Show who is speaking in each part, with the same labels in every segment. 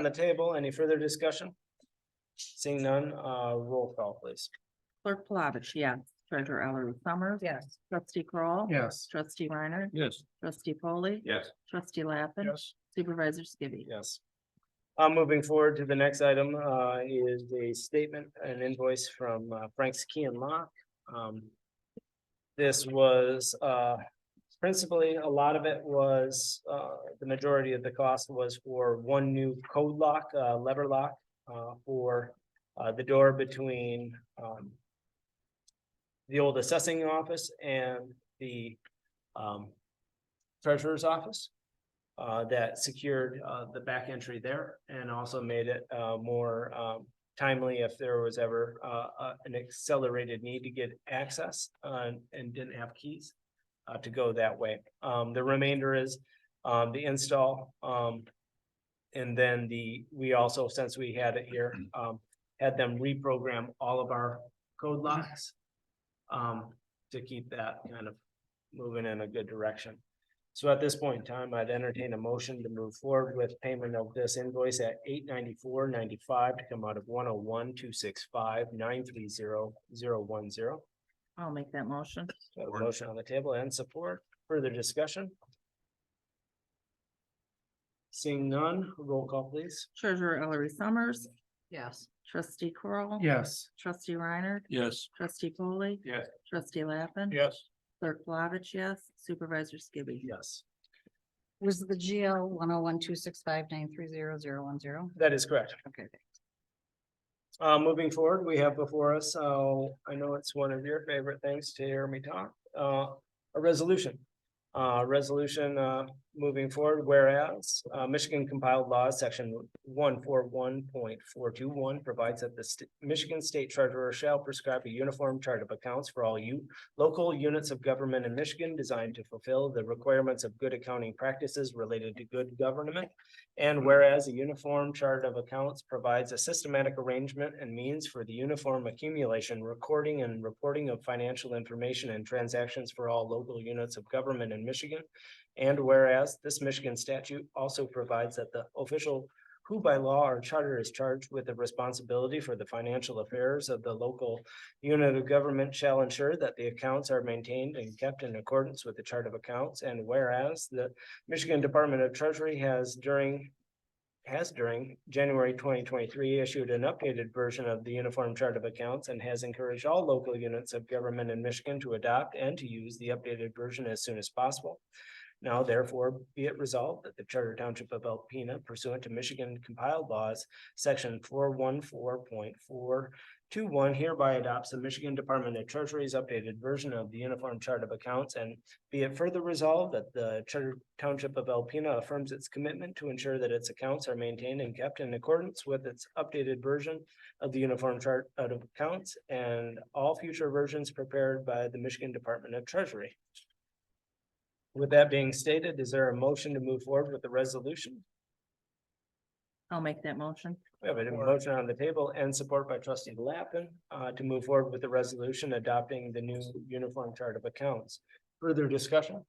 Speaker 1: on the table. Any further discussion? Seeing none, uh, roll call please.
Speaker 2: Clerk Plavich, yes. Treasurer Ellery Summers.
Speaker 3: Yes.
Speaker 2: Trustee Kroll,
Speaker 4: Yes.
Speaker 2: Trustee Reiner.
Speaker 4: Yes.
Speaker 2: Trustee Polly.
Speaker 4: Yes.
Speaker 2: Trustee Lappin.
Speaker 4: Yes.
Speaker 2: Supervisor Skibby.
Speaker 1: Yes. Uh, moving forward to the next item, uh, is a statement, an invoice from uh, Frank's Key and Lock. Um, this was, uh, principally, a lot of it was, uh, the majority of the cost was for one new code lock, uh, lever lock, uh, for, uh, the door between, um, the old assessing office and the, um, treasurer's office uh, that secured, uh, the back entry there and also made it, uh, more, um, timely if there was ever, uh, uh, an accelerated need to get access, uh, and didn't have keys, uh, to go that way. Um, the remainder is, um, the install, um, and then the, we also, since we had it here, um, had them reprogram all of our code locks um, to keep that kind of moving in a good direction. So at this point in time, I'd entertain a motion to move forward with payment of this invoice at eight ninety-four ninety-five to come out of one oh one two six five nine three zero zero one zero.
Speaker 2: I'll make that motion.
Speaker 4: Support.
Speaker 1: Motion on the table and support. Further discussion? Seeing none, roll call please.
Speaker 2: Treasurer Ellery Summers.
Speaker 3: Yes.
Speaker 2: Trustee Kroll,
Speaker 4: Yes.
Speaker 2: Trustee Reiner.
Speaker 4: Yes.
Speaker 2: Trustee Polly.
Speaker 4: Yes.
Speaker 2: Trustee Lappin.
Speaker 4: Yes.
Speaker 2: Clerk Plavich, yes. Supervisor Skibby.
Speaker 1: Yes.
Speaker 3: Was the GL one oh one two six five nine three zero zero one zero?
Speaker 1: That is correct.
Speaker 3: Okay.
Speaker 1: Uh, moving forward, we have before us, so I know it's one of your favorite things to hear me talk, uh, a resolution. Uh, resolution, uh, moving forward, whereas, uh, Michigan compiled law, section one four one point four two one provides that the st- Michigan State Treasurer shall prescribe a uniform chart of accounts for all you local units of government in Michigan designed to fulfill the requirements of good accounting practices related to good government. And whereas a uniform chart of accounts provides a systematic arrangement and means for the uniform accumulation, recording and reporting of financial information and transactions for all local units of government in Michigan. And whereas this Michigan statute also provides that the official who by law or charter is charged with the responsibility for the financial affairs of the local unit of government shall ensure that the accounts are maintained and kept in accordance with the chart of accounts. And whereas the Michigan Department of Treasury has during has during January twenty twenty-three issued an updated version of the Uniform Chart of Accounts and has encouraged all local units of government in Michigan to adopt and to use the updated version as soon as possible. Now therefore be it resolved that the Charter Township of Alpena pursuant to Michigan compiled laws, section four one four point four two one hereby adopts the Michigan Department of Treasury's updated version of the Uniform Chart of Accounts and be it further resolved that the Charter Township of Alpena affirms its commitment to ensure that its accounts are maintained and kept in accordance with its updated version of the Uniform Chart of Accounts and all future versions prepared by the Michigan Department of Treasury. With that being stated, is there a motion to move forward with the resolution?
Speaker 2: I'll make that motion.
Speaker 1: We have a motion on the table and support by trustee Lappin uh, to move forward with the resolution adopting the new Uniform Chart of Accounts. Further discussion?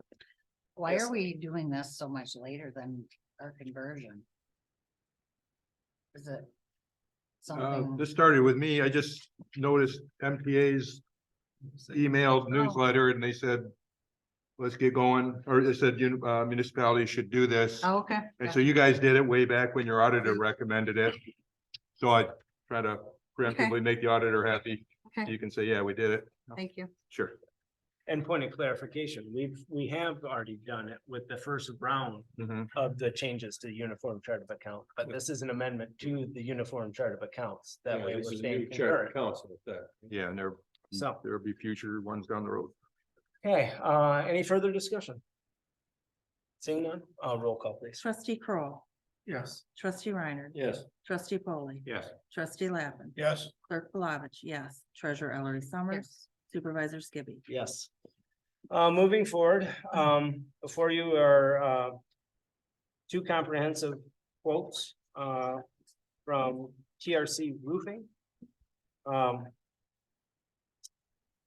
Speaker 3: Why
Speaker 1: Yes.
Speaker 3: are we doing this so much later than our conversion? Is it?
Speaker 4: Uh,
Speaker 3: Something,
Speaker 4: this started with me. I just noticed MTA's
Speaker 3: Oh.
Speaker 4: emailed newsletter and they said, let's get going, or they said "You- uh, municipalities should do this.
Speaker 3: Oh, okay.
Speaker 4: And so you guys did it way back when your auditor recommended it. So I try to preemptively make the auditor happy.
Speaker 3: Okay.
Speaker 4: You can say, yeah, we did it.
Speaker 3: Thank you.
Speaker 4: Sure.
Speaker 1: And point of clarification, we've, we have already done it with the first round
Speaker 4: Mhm.
Speaker 1: of the changes to the Uniform Chart of Account, but this is an amendment to the Uniform Chart of Accounts. That way we're staying concurrent.
Speaker 4: Yeah, and there,
Speaker 1: So,
Speaker 4: there'll be future ones down the road.
Speaker 1: okay, uh, any further discussion? Seeing none, uh, roll call please.
Speaker 2: Trustee Kroll,
Speaker 4: Yes.
Speaker 2: Trustee Reiner.
Speaker 4: Yes.
Speaker 2: Trustee Polly.
Speaker 4: Yes.
Speaker 2: Trustee Lappin.
Speaker 4: Yes.
Speaker 2: Clerk Plavich, yes. Treasurer Ellery Summers.
Speaker 3: Yes.
Speaker 2: Supervisor Skibby.
Speaker 1: Yes. Uh, moving forward, um, before you are, uh, two comprehensive quotes, uh, from TRC Roofing. Um,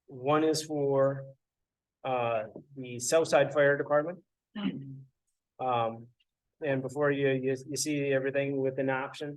Speaker 1: one is for,
Speaker 3: Hmm.
Speaker 1: uh, the Southside Fire Department. Um, And before you, you, you see everything with an option,